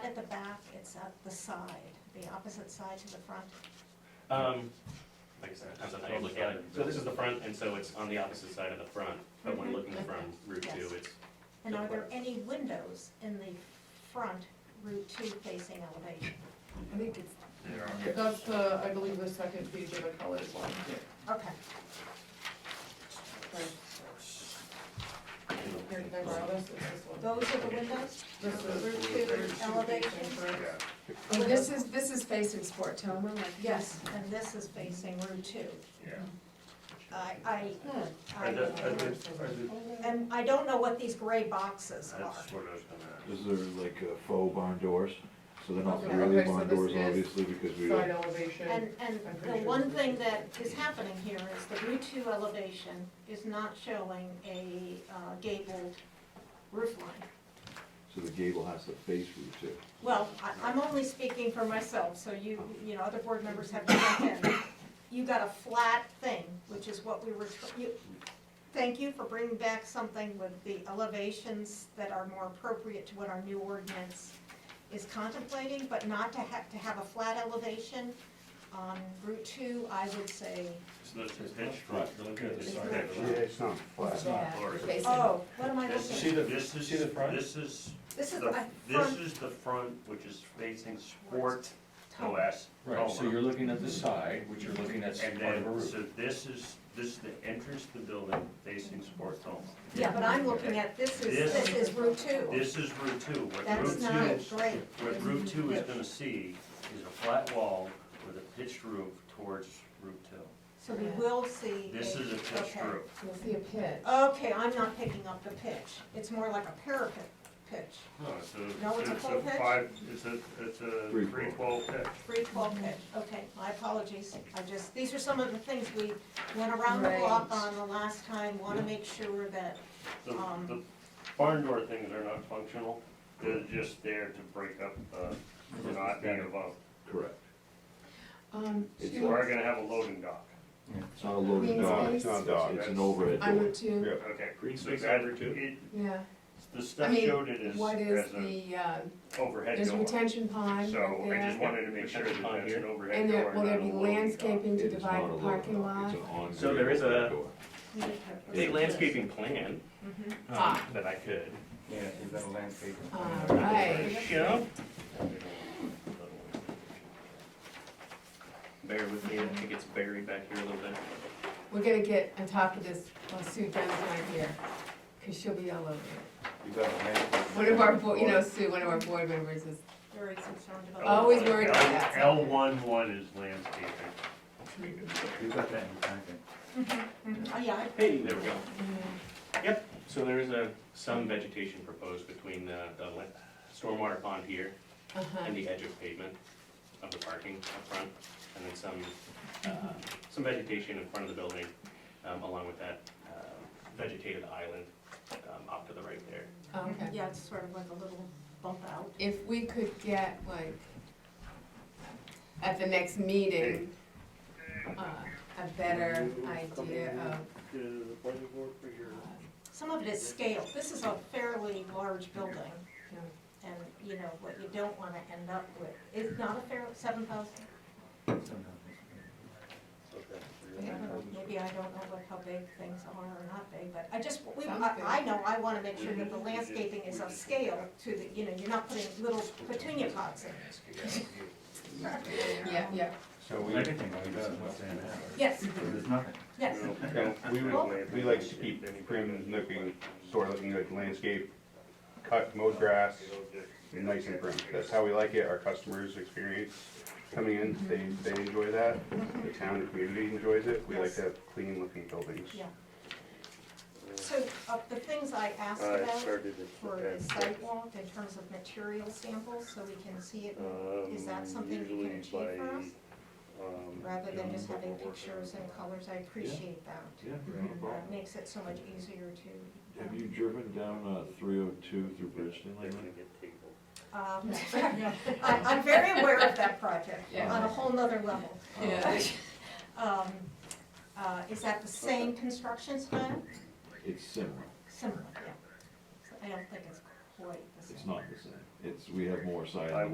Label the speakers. Speaker 1: it's at the side, the opposite side to the front.
Speaker 2: Um, like I said, it depends on how you look at it. So this is the front, and so it's on the opposite side of the front, but when
Speaker 1: Mhm.
Speaker 2: looking from Route Two,
Speaker 1: Yes.
Speaker 2: it's,
Speaker 1: And are there any windows in the front Route Two facing elevation?
Speaker 3: I think it's,
Speaker 4: There are.
Speaker 3: that's the, I believe the second page of the colored one.
Speaker 1: Okay,
Speaker 3: Here, can I borrow this? It's this one.
Speaker 1: those are the windows?
Speaker 3: This is Route two,
Speaker 4: Elevation.
Speaker 3: elevation.
Speaker 4: Yeah,
Speaker 5: And this is, this is facing Sportoma, like.
Speaker 1: Yes, and this is facing Route Two.
Speaker 4: yeah.
Speaker 1: I, I,
Speaker 3: Hmm.
Speaker 1: I,
Speaker 2: are the, are the, are the,
Speaker 1: and I don't know what these gray boxes are.
Speaker 2: that's what I was gonna,
Speaker 6: These are like uh, faux barn doors, so they're not
Speaker 3: Okay,
Speaker 6: really
Speaker 3: okay, so
Speaker 6: barn
Speaker 3: this
Speaker 6: doors,
Speaker 3: is
Speaker 6: obviously, because we
Speaker 3: Side
Speaker 6: don't,
Speaker 3: elevation.
Speaker 1: And, and
Speaker 3: I'm pretty
Speaker 1: the
Speaker 3: sure
Speaker 1: one
Speaker 3: this
Speaker 1: thing
Speaker 3: is-
Speaker 1: that is happening here is the Route Two elevation is not showing a uh, gabled roof line.
Speaker 6: so the gable has to face Route Two.
Speaker 1: Well, I, I'm only speaking for myself, so you, you know, other board members have to jump in. You got a flat thing, which is what we were, tr- you, thank you for bringing back something with the elevations that are more appropriate to what our new ordinance is contemplating, but not to have, to have a flat elevation on Route Two, I would say,
Speaker 2: it's not just pitch front, they're looking at this
Speaker 1: It's
Speaker 2: side.
Speaker 1: not-
Speaker 2: of the-
Speaker 4: it's not
Speaker 5: It's not facing-
Speaker 1: oh, what am I
Speaker 2: This is,
Speaker 1: looking at?
Speaker 2: this is,
Speaker 4: see the front?
Speaker 2: this is,
Speaker 1: This is
Speaker 2: the-
Speaker 1: a
Speaker 2: this
Speaker 1: front
Speaker 2: is the front, which is facing Sport
Speaker 1: tone.
Speaker 2: OS.
Speaker 7: Right, so you're looking at the side, which you're looking at
Speaker 2: And
Speaker 7: part of a
Speaker 2: then,
Speaker 7: roof.
Speaker 2: so this is, this is the entrance to the building facing Sport Toma.
Speaker 1: Yeah, but I'm looking at, this is, this is Route Two,
Speaker 2: This is Route Two, what
Speaker 1: that's not
Speaker 2: Route Two,
Speaker 1: great.
Speaker 2: what Route Two is gonna see is a flat wall with a pitched roof towards Route Two.
Speaker 1: So we will see.
Speaker 2: This
Speaker 1: a-
Speaker 2: is a pitched
Speaker 1: okay.
Speaker 2: roof.
Speaker 3: You'll see a pitch.
Speaker 1: Okay, I'm not picking up the pitch. It's more like a parapet pitch,
Speaker 2: No, it's a.
Speaker 1: No, it's a full pitch?
Speaker 2: five, it's a, it's a
Speaker 6: Three
Speaker 2: three twelve pitch.
Speaker 1: three twelve
Speaker 5: Mm-hmm.
Speaker 1: pitch. Okay, my apologies. I just, these are some of the things we went around the
Speaker 5: Right.
Speaker 1: block on the last time. Want to make sure that,
Speaker 2: The,
Speaker 1: Um,
Speaker 2: the barn door things are not functional, they're just there to break up, uh, not being above.
Speaker 6: Correct.
Speaker 3: Um,
Speaker 6: It's
Speaker 3: she
Speaker 2: We are
Speaker 3: wants-
Speaker 2: gonna have a loading dock,
Speaker 6: It's not a loading
Speaker 5: Means
Speaker 6: dock,
Speaker 5: space.
Speaker 6: it's it's an overhead
Speaker 5: I
Speaker 6: door.
Speaker 5: would too,
Speaker 2: okay.
Speaker 4: Green
Speaker 2: so
Speaker 4: space
Speaker 2: that-
Speaker 4: over too.
Speaker 2: it-
Speaker 5: yeah.
Speaker 2: The
Speaker 5: I
Speaker 2: stuff
Speaker 5: mean,
Speaker 2: showed it as,
Speaker 5: What is
Speaker 2: as an
Speaker 5: the, uh,
Speaker 2: overhead
Speaker 5: there's a
Speaker 2: door,
Speaker 5: retention pond
Speaker 2: so
Speaker 5: right
Speaker 2: I just
Speaker 5: there.
Speaker 2: wanted to make sure that that's an overhead
Speaker 5: And
Speaker 2: door,
Speaker 5: there, will
Speaker 2: not
Speaker 5: there
Speaker 2: a loading
Speaker 5: be
Speaker 2: dock.
Speaker 5: landscaping to
Speaker 6: It is not
Speaker 5: divide
Speaker 6: a
Speaker 5: the
Speaker 6: loading
Speaker 5: parking
Speaker 6: dock,
Speaker 5: lot?
Speaker 6: It's an on.
Speaker 4: So there is a-
Speaker 1: we need
Speaker 6: Hey,
Speaker 2: A
Speaker 1: to.
Speaker 2: landscaping plan,
Speaker 1: Mhm.
Speaker 2: um,
Speaker 5: Ah.
Speaker 2: that I could.
Speaker 4: Yeah, you've got a landscape.
Speaker 5: All right.
Speaker 2: Show. Bear with me, I think it's buried back here a little bit.
Speaker 5: We're gonna get on top of this while Sue John's not here, because she'll be all over it.
Speaker 4: You've got a landscape.
Speaker 5: One of our, bo- you know, Sue, one of our board members is,
Speaker 1: Very concerned about.
Speaker 5: Always worried about that.
Speaker 2: L one one is landscaping.
Speaker 4: You've got that in your packet.
Speaker 1: Mhm. Oh, yeah, I-
Speaker 2: Hey, there we go.
Speaker 5: Mm-hmm.
Speaker 2: Yep, so there is a, some vegetation proposed between the, the la- stormwater pond here
Speaker 5: uh-huh.
Speaker 2: and the edge of pavement of the parking up front, and then some,
Speaker 5: Mm-hmm.
Speaker 2: uh, some vegetation in front of the building, um, along with that, uh, vegetated island, um, off to the right there.
Speaker 5: Okay.
Speaker 1: yeah, it's sort of like a little bump out.
Speaker 5: If we could get like, at the next meeting, uh, a better idea of, uh,
Speaker 1: Some of it is scale. This is a fairly large building.
Speaker 5: you know,
Speaker 1: and, you know, what you don't wanna end up with, it's not a fair, seven thousand? Maybe I don't know what, how big things are or not big, but I just, we,
Speaker 5: Sounds
Speaker 1: I,
Speaker 5: good.
Speaker 1: I know, I wanna make sure that the landscaping is of scale to the, you know, you're not putting little petunia pots in.
Speaker 5: yeah, yeah.
Speaker 4: So we, everything we got is what's in there.
Speaker 1: Yes,
Speaker 4: There's nothing.
Speaker 1: yes,
Speaker 8: Yeah, we would, we like to keep prim looking, sort of looking good landscape, cut, mowed grass, nice and prim. That's how we like it, our customers experience coming in, they, they enjoy that, the town and community enjoys it, we like to have clean looking buildings.
Speaker 1: yeah. So, uh, the things I asked
Speaker 2: I
Speaker 1: about
Speaker 2: started it.
Speaker 1: for the sidewalk in terms of material samples, so we can see it, is that something you can achieve for us? Rather than just having pictures and colors, I appreciate that.
Speaker 6: Yeah, no problem.
Speaker 1: That makes it so much easier to.
Speaker 6: Have
Speaker 1: um,
Speaker 6: you driven down, uh, three oh two through Bridgeton lately?
Speaker 1: Um, I, I'm very aware of that project,
Speaker 5: Yeah.
Speaker 1: on a whole nother level.
Speaker 5: Yeah.
Speaker 1: Um, uh, is that the same construction style?
Speaker 6: Uh, It's similar,
Speaker 1: Similar, yeah. I don't think it's quite the same.
Speaker 6: it's not the same, it's, we have more siding.